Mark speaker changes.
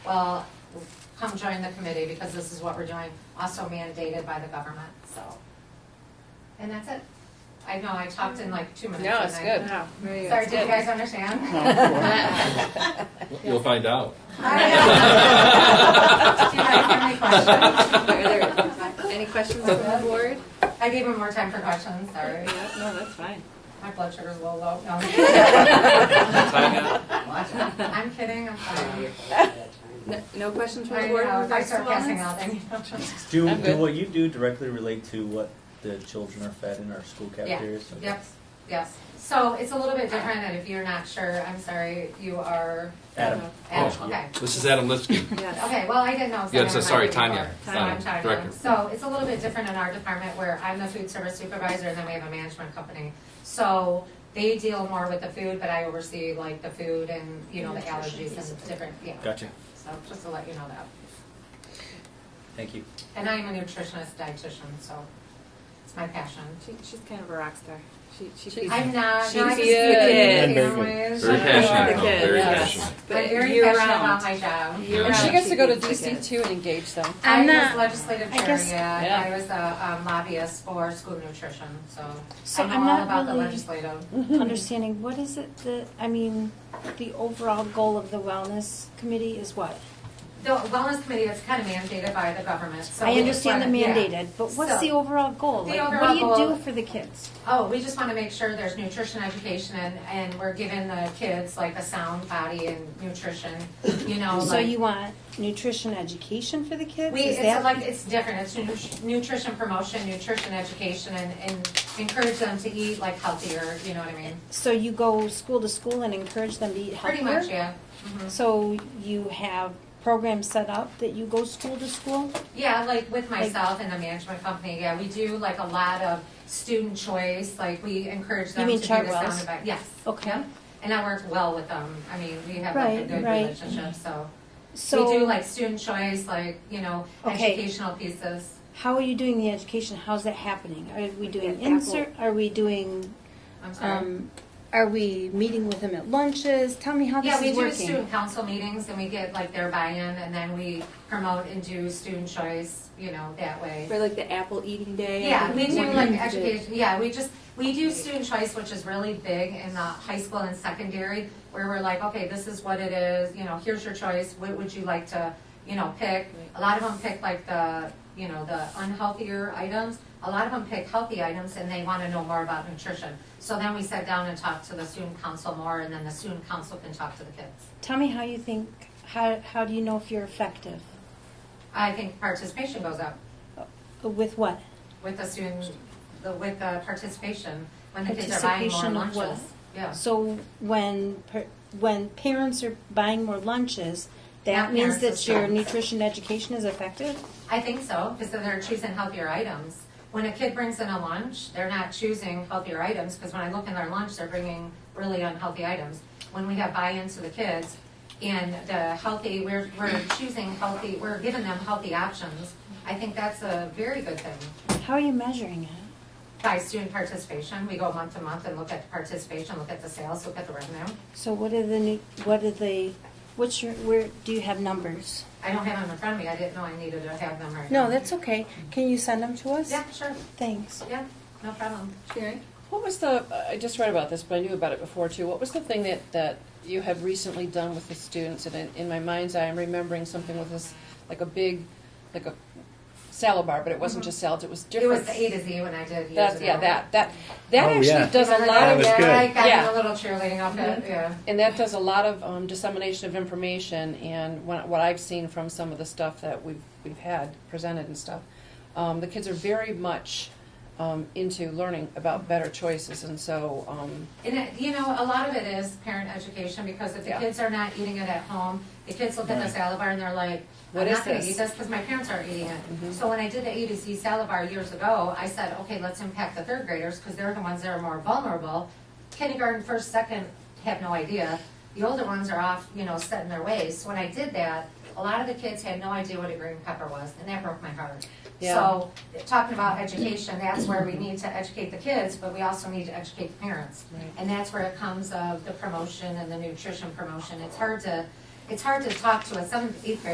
Speaker 1: well, come join the committee because this is what we're doing, also mandated by the government, so. And that's it. I know, I talked in like two minutes.
Speaker 2: No, it's
Speaker 1: and
Speaker 2: good.
Speaker 1: I- Sorry, did you guys
Speaker 3: No,
Speaker 1: understand?
Speaker 3: of course.
Speaker 4: You'll find out.
Speaker 1: I, uh, Do you guys have any questions?
Speaker 2: Are there any questions from the board?
Speaker 1: I gave him more time for questions, sorry.
Speaker 2: No, that's fine.
Speaker 1: My blood sugar's a little low. No, I'm kidding. I'm kidding, I'm sorry.
Speaker 2: No- No questions from the
Speaker 1: I
Speaker 2: board?
Speaker 1: know,
Speaker 2: in
Speaker 1: if I
Speaker 2: regards to
Speaker 1: start passing
Speaker 2: wellness?
Speaker 1: out, then you know.
Speaker 3: Do,
Speaker 2: I'm
Speaker 3: do
Speaker 2: good.
Speaker 3: what you do directly relate to what the children are fed in our school cafeterias? Okay.
Speaker 1: Yep, yes. So it's a little bit different, and if you're not sure, I'm sorry, you are.
Speaker 3: Adam.
Speaker 1: Adam,
Speaker 4: Oh,
Speaker 1: okay.
Speaker 4: This is Adam Lipsky.
Speaker 2: Yes.
Speaker 1: Okay, well, I didn't know.
Speaker 4: Yeah, so
Speaker 1: I'm
Speaker 4: sorry,
Speaker 1: not
Speaker 4: Tanya.
Speaker 1: before. So I'm
Speaker 4: Tanya, director.
Speaker 1: Tanya. So it's a little bit different in our department where I'm the food service supervisor and then we have a management company. So they deal more with the food, but I oversee like the food and, you know, the allergies and different, yeah.
Speaker 3: Gotcha.
Speaker 1: So just to let you know that.
Speaker 3: Thank you.
Speaker 1: And I am a nutritionist dietitian, so it's my passion.
Speaker 2: She, she's kind of a rock star. She, she. feeds-
Speaker 1: I'm not,
Speaker 2: She
Speaker 1: not just the
Speaker 2: is.
Speaker 1: kids, you
Speaker 3: Very
Speaker 1: know,
Speaker 3: good.
Speaker 1: it's-
Speaker 4: Very
Speaker 2: Yeah.
Speaker 4: passionate, though,
Speaker 2: Yeah.
Speaker 4: very
Speaker 2: Yeah.
Speaker 4: passionate.
Speaker 2: but
Speaker 1: I'm very
Speaker 2: year
Speaker 1: passionate
Speaker 2: round.
Speaker 1: about my job.
Speaker 2: Year
Speaker 5: And she
Speaker 2: round,
Speaker 5: gets to go to
Speaker 2: feeds the
Speaker 5: DC
Speaker 2: kids.
Speaker 5: too and engage them.
Speaker 1: I
Speaker 6: I'm
Speaker 1: was
Speaker 6: not-
Speaker 1: legislative
Speaker 6: I
Speaker 1: chair,
Speaker 6: guess-
Speaker 1: yeah.
Speaker 2: Yeah.
Speaker 1: I was a um, lobbyist for school nutrition, so
Speaker 6: So
Speaker 1: I know
Speaker 6: I'm
Speaker 1: all
Speaker 6: not
Speaker 1: about the
Speaker 6: really-
Speaker 1: legislative.
Speaker 6: Understanding, what is it that, I mean, the overall goal of the wellness committee is what?
Speaker 1: The wellness committee is kind of mandated by the government, so.
Speaker 6: I
Speaker 1: we
Speaker 6: understand the
Speaker 1: just wanna- yeah.
Speaker 6: mandated, but what's the
Speaker 1: So-
Speaker 6: overall goal?
Speaker 1: The
Speaker 6: Like,
Speaker 1: overall
Speaker 6: What do you
Speaker 1: goal-
Speaker 6: do for the kids?
Speaker 1: Oh, we just want to make sure there's nutrition education and, and we're giving the kids like a sound body and nutrition, you know,
Speaker 6: So
Speaker 1: like-
Speaker 6: you want nutrition education for the kids?
Speaker 1: Oh We,
Speaker 6: Is
Speaker 1: it's
Speaker 6: that-
Speaker 1: like, it's different, it's nutri- nutrition promotion, nutrition education, and, and encourage them to eat like healthier, you know what I mean?
Speaker 6: So you go school to school and encourage them to eat
Speaker 1: Pretty
Speaker 6: healthier?
Speaker 1: much, yeah. Mhm.
Speaker 6: So you have programs set up that you go school to school?
Speaker 1: Yeah, like with myself and the management company, yeah, we do like a lot of student choice, like we encourage them to
Speaker 6: mean
Speaker 1: do the sound
Speaker 6: Chartwell's?
Speaker 1: advi- Yes.
Speaker 6: Okay.
Speaker 1: Yep. And I work well with them, I mean, we have like a
Speaker 6: Right,
Speaker 1: good
Speaker 6: right.
Speaker 1: relationship, so.
Speaker 6: So
Speaker 1: We do like student choice, like, you know,
Speaker 6: Okay.
Speaker 1: educational pieces.
Speaker 6: How are you doing the education? How's that happening? Are we doing
Speaker 2: Apple.
Speaker 6: insert? Are we doing?
Speaker 1: I'm sorry.
Speaker 6: Um, are we meeting with them at lunches? Tell me how this
Speaker 1: Yeah, we
Speaker 6: is
Speaker 1: do
Speaker 6: working.
Speaker 1: student council meetings and we get like their buy-in and then we promote and do student choice, you know, that way.
Speaker 2: For like the apple eating day.
Speaker 1: Yeah, we do like
Speaker 2: Mhm.
Speaker 1: education, yeah, we just, we do student choice, which is really big in the high school and secondary, where we're like, okay, this is what it is, you know, here's your choice, what would you like to, you know, pick? A lot of them pick like the, you know, the unhealthier items, a lot of them pick healthy items and they wanna know more about nutrition. So then we sat down and talked to the student council more, and then the student council can talk to the kids.
Speaker 6: Tell me how you think. How how do you know if you're effective?
Speaker 1: I think participation goes up
Speaker 6: With what?
Speaker 1: with the student, the, with the participation, when the kids are buying more
Speaker 6: Participation of
Speaker 1: lunches.
Speaker 6: what?
Speaker 1: Yeah.
Speaker 6: So when per, when parents are buying more lunches, that
Speaker 1: Not
Speaker 6: means
Speaker 1: parents,
Speaker 6: that your
Speaker 1: adults.
Speaker 6: nutrition education is effective.
Speaker 1: I think so, because they're choosing healthier items. When a kid brings in a lunch, they're not choosing healthier items, because when I look in their lunch, they're bringing really unhealthy items. When we have buy-in to the kids, and the healthy, we're, we're choosing healthy, we're giving them healthy options, I think that's a very good thing.
Speaker 6: How are you measuring it?
Speaker 1: By student participation, we go month to month and look at the participation, look at the sales, look at the revenue.
Speaker 6: So what are the nu- what are the what's your where do you have numbers?
Speaker 1: I don't have them in front of me, I didn't know I needed to have them right now.
Speaker 6: No, that's okay. Can you send them to us?
Speaker 1: Yeah, sure,
Speaker 6: Thanks.
Speaker 1: yeah, no problem.
Speaker 2: Sharon?
Speaker 5: What was the, I just read about this, but I knew about it before too. What was the thing that, that you have recently done with the students? And in, in my mind's eye, I'm remembering something with this, like a big, like a salad bar, but it wasn't just salads, it was
Speaker 1: Mm-hmm. It
Speaker 5: different.
Speaker 1: was the A to Z when I did years
Speaker 5: That's,
Speaker 1: ago.
Speaker 5: yeah, that, that, that
Speaker 3: Oh, yeah.
Speaker 5: actually does a
Speaker 1: Remember
Speaker 5: lot
Speaker 1: that?
Speaker 5: of,
Speaker 3: That was good.
Speaker 1: Yeah, I got in
Speaker 5: Yeah.
Speaker 1: a little cheerleading outfit, yeah.
Speaker 5: And that does a lot of um, dissemination of information, and when, what I've seen from some of the stuff that we've we've had presented and stuff, um, the kids are very much um, into learning about better choices, and so um,
Speaker 1: And it, you know, a lot of it is parent education, because if the
Speaker 5: Yeah.
Speaker 1: kids are not eating it at home, the kids look at the
Speaker 3: Right.
Speaker 1: salad bar and they're like,
Speaker 5: What
Speaker 1: I'm
Speaker 5: is
Speaker 1: not gonna
Speaker 5: this? Mm-hmm.
Speaker 1: eat this because my parents aren't eating it. So when I did the A to Z salad bar years ago, I said, okay, let's impact the third graders, because they're the ones that are more vulnerable. Kindergarten, first, second, have no idea. The older ones are off, you know, set in their ways. So when I did that, a lot of the kids had no idea what a green pepper was, and that broke my heart.
Speaker 5: Yeah.
Speaker 1: So, talking about education, that's where we need to educate the kids, but we also need to educate the parents.
Speaker 5: Right.
Speaker 1: And that's where it comes of the promotion and the nutrition promotion. It's hard to, it's hard to talk to a seventh, eighth grader